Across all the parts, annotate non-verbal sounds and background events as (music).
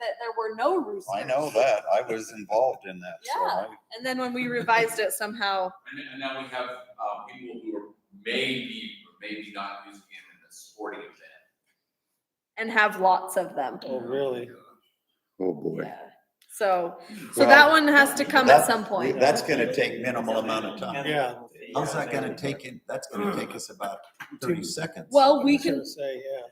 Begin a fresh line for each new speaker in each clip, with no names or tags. there were no roosters.
I know that. I was involved in that. So
Yeah.
I,
And then when we revised it somehow,
And, and now we have, uh, people who are maybe, or maybe not using it in a sporting event.
and have lots of them.
Oh, really?
Oh, boy.
Yeah. So, so
Well,
that one has to come at
that-
some point.
That's gonna take minimal amount of time.
Yeah.
How's that gonna take in, that's gonna take us (clears throat) about thirty seconds.
Well,
I
we
was gonna
can,
Say, yeah.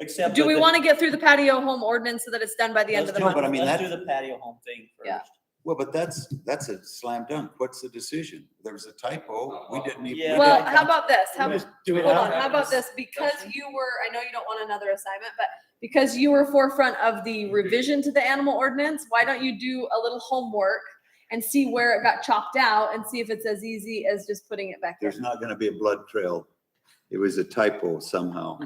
Except.
do
that
we
the-
want to get through the patio home ordinance so that it's done by the end of
let's
the
do-
No, but I
month?
mean,
Let's
that-
do the patio home thing
Yeah.
first.
Well, but that's, that's a slam dunk. What's the decision? There was a typo. We didn't even. we
Yeah.
Well,
didn't
how
come-
about this? How,
We'll just Do it
Hold
now.
on, how about this, because you were, I know you don't want another assignment, but because you were forefront of the revision to the animal ordinance, why don't you do a little homework and see where it got chopped out and see if it's as easy as just putting it back in?
There's not gonna be a blood trail. It was a
(laughs)
typo somehow.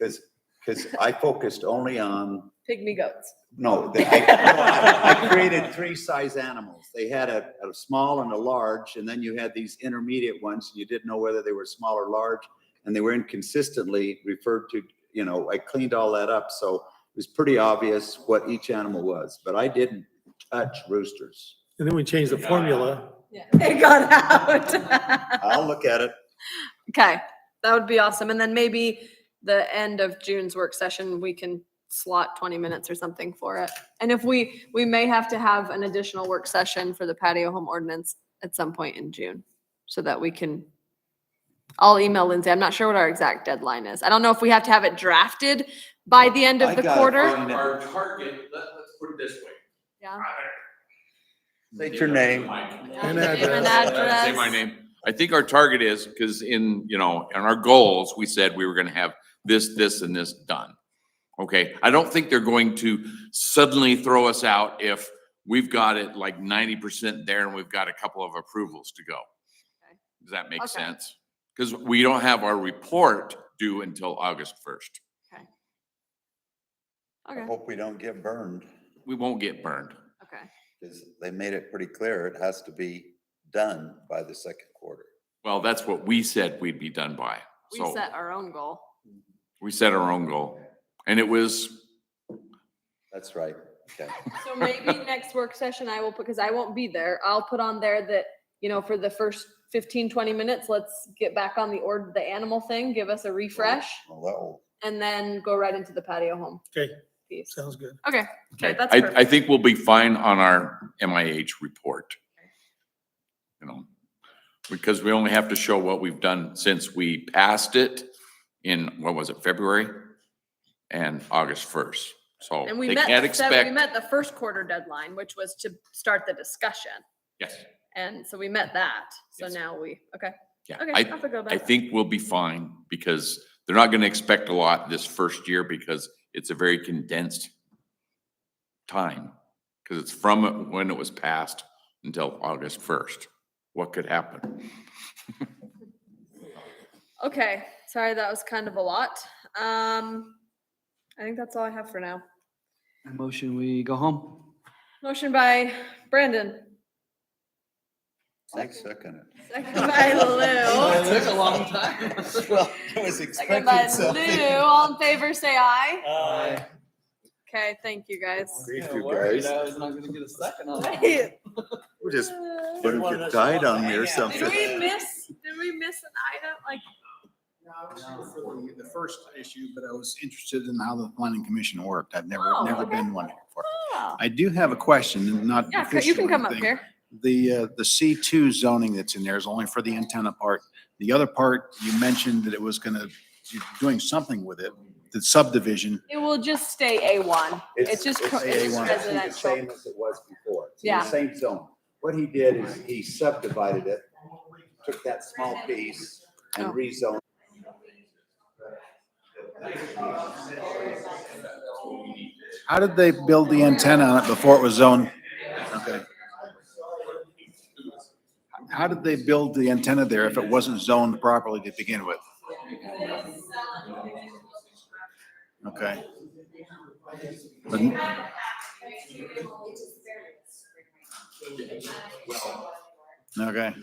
Cause, cause I focused only on
Pygmy goats.
No, the- I, no, I- I created three size animals. They had a, a small and a large, and then you had these intermediate ones. and You didn't know whether they were small or large, and they were inconsistently referred to, you know, I cleaned all that up, so it was pretty obvious what each animal was, but I didn't touch roosters.
And then we change the formula.
Yeah. It got out.
I'll look at it.
(laughs) Okay, that would be awesome. And then maybe the end of June's work session, we can slot twenty minutes or something for it. And if we, we may have to have an additional work session for the patio home ordinance at some point in June. So that we can, I'll email Lindsay. I'm not sure what our exact deadline is. I don't know if we have to have it drafted by the end
I
of the
got it.
quarter.
Our, our target, let, let's put it this way.
Yeah.
State your name.
And
address.
address.
Say my name. I think our target is, because in, you know, in our goals, we said we were gonna have this, this, and this done. Okay, I don't think they're going to suddenly throw us out if we've got it like ninety percent there and we've got a couple of approvals to go.
Okay.
Does that make
Okay.
sense? Because we don't have our report due until August first.
Okay,
Hope we don't get burned,
We won't get burned.
okay.
because they made it pretty clear it has to be done by the second quarter.
Well, that's what we said we'd be done by.
We
So
set our own goal.
we set our own goal. And it was,
That's right. Okay.
So maybe next work session I will, put because I won't be there, I'll put on there that, you know, for the first 15, 20 minutes, let's get back on the ord, the animal thing, give us a refresh,
Well, that'll-
and then go right into the patio home
Okay,
piece.
sounds good.
Okay, okay,
I,
that's
I
perfect.
think we'll be fine on our MIH report. You know, because we only have to show what we've done since we passed it in, what was it, February? And August first. So
And
they
we met,
can't
the sev- we
expect,
met the first quarter deadline, which was to start the discussion.
yes,
And so we met that. So
Yes.
now we, okay,
yeah.
okay.
I,
I'll feel good about
I
it.
think we'll be fine because they're not gonna expect a lot this first year because it's a very condensed time. Cause it's from when it was passed until August first. What could happen?
Okay, sorry, that was kind of a lot. Um, I think that's all I have for now.
Motion, we go home.
Motion by Brandon.
I second it.
Second (laughs) by Lou.
took a
(laughs)
long time.
(laughs) Well, I was
Second by
expecting something.
Lou. All in favor, say aye.
Uh,
Okay, thank you guys.
Grief,
Yeah,
you
word,
guys.
I was not gonna get a second on
(laughs)
that.
Did (laughs)
We're just
we
putting
One
your
of us
diet
wants
on
to
me
hang
or
out.
something.
miss, did we miss an item? Like,
The first issue, but I was interested in how the planning commission worked. I've never,
Oh,
never
okay.
been one before.
oh.
I do have a question, not
Yeah, c- you
official
can
or
come up
anything.
here.
The, uh, the C2 zoning that's in there is only for the antenna part. The other part, you mentioned that it was gonna, you're doing something with it, the subdivision.
It will just stay A1. It's just, co- it's just
A1.
residential.
Same as it was before. It's in
Yeah.
the Same zone. What he did is he subdivided it, took that small piece and
Oh.
rezoned.
How did they build the antenna on it before it was zoned? Okay. How did they build the antenna there if it wasn't zoned properly to begin with? Okay. But Okay.